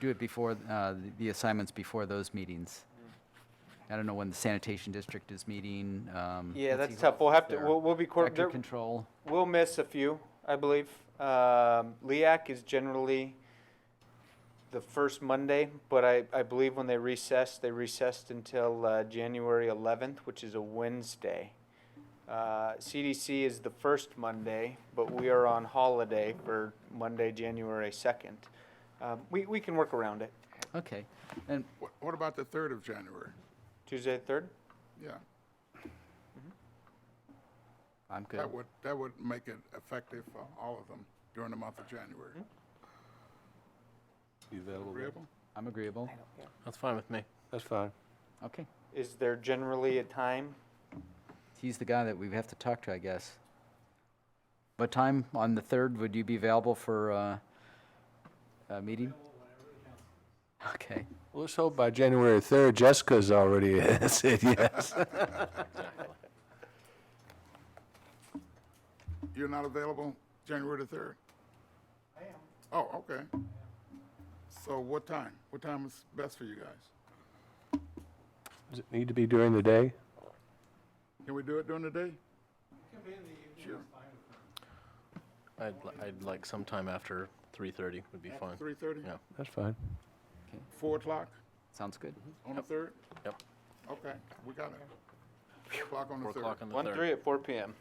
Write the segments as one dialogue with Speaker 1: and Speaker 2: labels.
Speaker 1: do it before, uh, the assignments before those meetings. I don't know when the sanitation district is meeting. um,
Speaker 2: Yeah,
Speaker 1: let's
Speaker 2: that's
Speaker 1: see
Speaker 2: tough. We'll
Speaker 1: what's
Speaker 2: have to,
Speaker 1: there.
Speaker 2: we'll, we'll be, coor-
Speaker 1: Vector
Speaker 2: there-
Speaker 1: control,
Speaker 2: we'll miss a few, I believe. Um, LEAC is generally the first Monday, but I, I believe when they recessed, they recessed until uh, January 11th, which is a Wednesday. Uh, CDC is the first Monday, but we are on holiday for Monday, January 2nd. Um, we, we can work around it.
Speaker 1: okay. And
Speaker 3: Wh- What about the 3rd of January?
Speaker 2: Tuesday, 3rd?
Speaker 3: Yeah,
Speaker 1: I'm good.
Speaker 3: that would, that would make it effective for all of them during the month of January.
Speaker 4: You available?
Speaker 3: Agreeable?
Speaker 1: I'm agreeable.
Speaker 5: That's fine with me.
Speaker 4: That's fine.
Speaker 1: Okay.
Speaker 2: Is there generally a time?
Speaker 1: He's the guy that we have to talk to, I guess. What time on the 3rd would you be available for uh, a meeting? Okay.
Speaker 4: Well, let's hope by January 3rd, Jessica's already said yes.
Speaker 3: You're not available January the 3rd? I am. Oh, okay. So what time? What time is best for you guys?
Speaker 4: Does it need to be during the day?
Speaker 3: Can we do it during the day? Sure.
Speaker 5: I'd, li- I'd like sometime after 3:30 would be fine.
Speaker 3: 3:30?
Speaker 5: Yeah.
Speaker 4: That's fine.
Speaker 3: 4 o'clock
Speaker 1: Sounds good.
Speaker 3: on the 3rd?
Speaker 5: Yep.
Speaker 3: Okay, we got it. 4 o'clock on the
Speaker 5: 4
Speaker 3: 3rd.
Speaker 5: o'clock on the
Speaker 2: 1,
Speaker 5: 3rd.
Speaker 2: 3 at 4 p.m.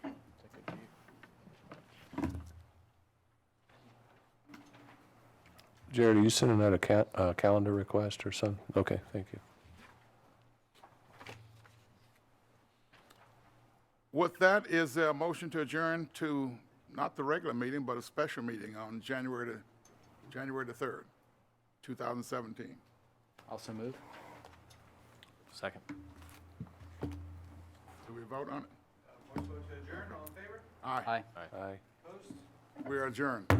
Speaker 4: Jared, are you sending out a ca- uh, calendar request or something? Okay, thank you.
Speaker 3: With that, is there a motion to adjourn to, not the regular meeting, but a special meeting on January the, January the 3rd, 2017?
Speaker 1: Also move?
Speaker 5: Second.
Speaker 3: Do we vote on it?
Speaker 2: Motion to adjourn, all in favor?
Speaker 3: Aye,
Speaker 1: Aye.
Speaker 4: Aye.
Speaker 3: we are adjourned.